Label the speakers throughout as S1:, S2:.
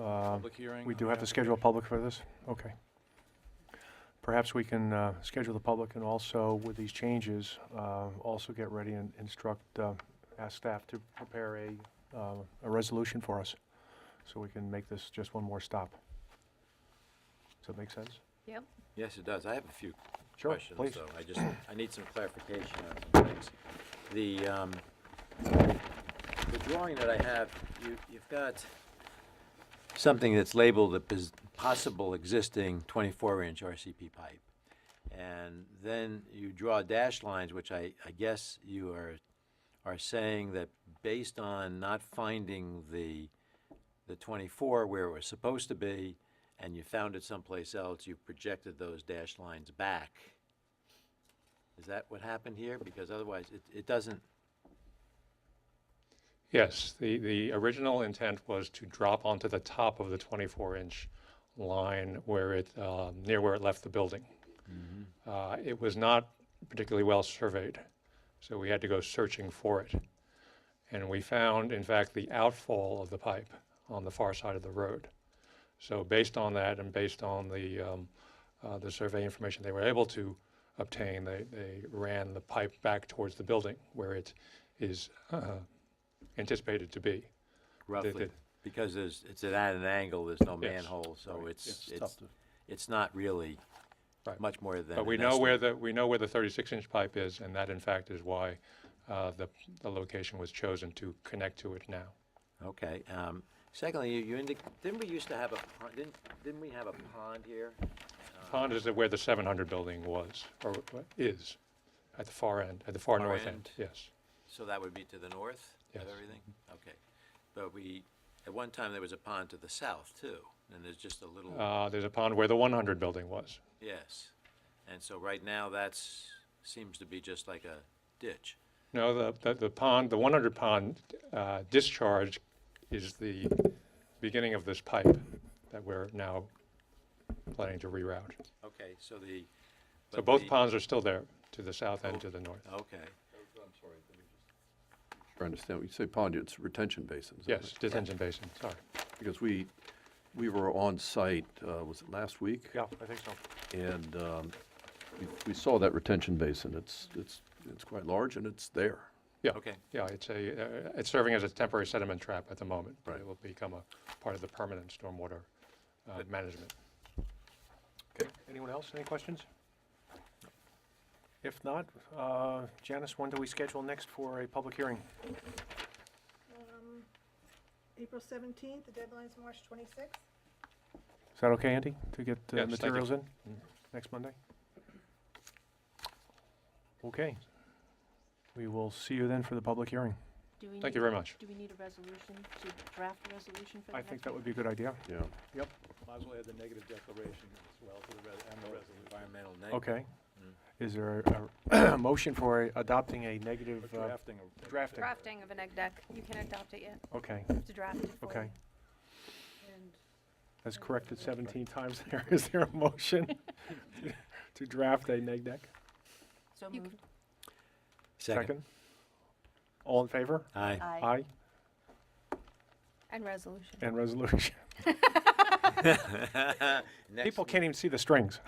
S1: public hearing?
S2: Uh, We do
S1: on
S2: have to
S1: that?
S2: schedule a public for this? Okay. Perhaps we can uh, schedule the public and also with these changes, uh, also get ready and instruct, uh, ask staff to prepare a, uh, a resolution for us, so we can make this just one more stop. Does that make sense?
S3: Yep.
S1: Yes, it does. I have a few
S2: Sure,
S1: questions,
S2: please.
S1: though. I just, I need some clarification on some things. The, um, the drawing that I have, you, you've got something that's labeled a pos- possible existing twenty-four inch RCP pipe. And then you draw dash lines, which I, I guess you are, are saying that based on not finding the, the 24 where it was supposed to be, and you found it someplace else, you projected those dash lines back. Is that what happened here? Because otherwise, it, it doesn't,
S4: Yes, the, the original intent was to drop onto the top of the 24-inch line where it, uh, near where it left the building. Uh, It was not particularly well surveyed, so we had to go searching for it. And we found, in fact, the outfall of the pipe on the far side of the road. So based on that and based on the, um, uh, the survey information they were able to obtain, they, they ran the pipe back towards the building where it is uh, anticipated to be.
S1: roughly,
S4: did.
S1: because there's, it's at an angle, there's no
S4: Yes,
S1: manhole, so it's,
S4: yes,
S1: it's, it's not really
S4: Right.
S1: much more than.
S4: But we
S1: an
S4: know where
S1: estimate.
S4: the, we know where the 36-inch pipe is, and that in fact is why uh, the, the location was chosen to connect to it now.
S1: Okay, um, secondly, you, you indic, didn't we used to have a, pond- didn't, didn't we have a pond here?
S4: Pond is where the 700 building was, or is, at the far end, at the far
S1: Far
S4: north
S1: end.
S4: end, yes.
S1: So that would be to the north of
S4: Yes.
S1: everything? Okay. But we, at one time, there was a pond to the south too, and there's just a little,
S4: Uh, There's a pond where the 100 building was.
S1: yes. And so right now, that's, seems to be just like a ditch.
S4: No, the, the- the pond, the 100 pond uh, discharge is the beginning of this pipe that we're now planning to reroute.
S1: Okay, so the.
S4: So
S1: but
S4: both
S1: the-
S4: ponds are still there, to the south and
S1: Oh.
S4: to the north.
S1: Okay,
S5: I understand, when you say pond, it's retention basin. is that
S4: Yes,
S5: right?
S4: detention basin, sorry.
S5: Because we, we were on site, uh, was it last week?
S2: Yeah, I think so.
S5: And um, we- we saw that retention basin. It's, it's, it's quite large and it's there.
S4: Yeah.
S1: Okay.
S4: Yeah, it's a, uh, it's serving as a temporary sediment trap at the moment. but It
S5: Right.
S4: will become a part of the permanent stormwater uh, management.
S2: Anyone else, any questions? If not, uh, Janice, when do we schedule next for a public hearing?
S6: April 17th, the deadline's March 26th.
S2: Is that okay, Andy, to get
S4: Yes,
S2: the
S4: thank you.
S2: materials in next Monday? Okay. We will see you then for the public hearing.
S3: Do we
S4: Thank
S3: need-
S4: you very much.
S3: Do we need a resolution to draft a resolution for the
S2: I
S3: next
S2: think that
S3: one?
S2: would be a good idea.
S5: Yeah.
S7: Might as well add the negative declaration as well to the, res- and the resolution.
S1: environmental neg.
S2: Okay. Is there a a motion for a- adopting a negative
S7: Or
S2: uh,
S7: drafting of-
S2: drafting?
S8: Drafting of an egg deck. You can't adopt it yet.
S2: Okay,
S8: You have to draft it for
S2: Okay.
S8: you.
S6: And
S2: that's corrected 17 times there. Is there a motion to draft a neg deck?
S3: So
S8: You
S3: moved.
S1: Second.
S2: All in favor?
S1: Aye.
S2: Aye.
S8: And resolution.
S2: And resolution.
S1: Next
S2: People can't even see the strings.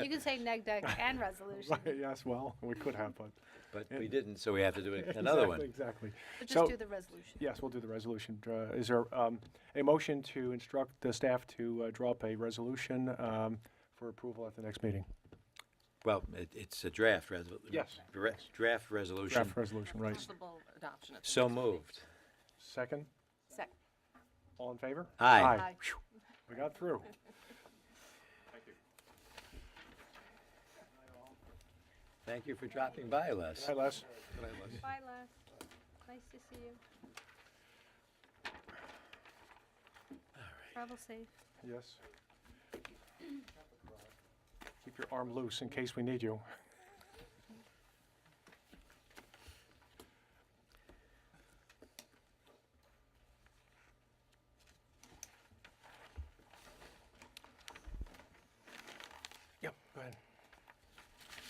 S8: You can say neg deck and resolution.
S2: Yes, well, we could have, but.
S1: But we didn't, so we have to do another
S2: Exactly,
S1: one.
S2: Exactly.
S8: But
S2: So-
S8: just do the resolution.
S2: Yes, we'll do the resolution. Dra- Is there um, a motion to instruct the staff to uh, draw up a resolution um, for approval at the next meeting?
S1: Well, it, it's a draft resolution.
S2: Yes.
S1: Draft resolution.
S2: Draft resolution, right.
S3: Possible adoption at the
S1: So
S3: next meeting.
S1: moved.
S2: Second,
S3: Sec-
S2: all in favor?
S1: Aye.
S8: Aye.
S2: Phew, We got through.
S1: Thank you for dropping by, Les.
S2: Hi, Les.
S8: Bye, Les. Nice to see you. Travel safe.
S2: Yes. Keep your arm loose in case we need you. Yep, go ahead.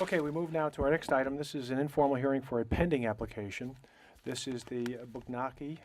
S2: Okay, we move now to our next item. This is an informal hearing for a pending application. This is the Bugnaki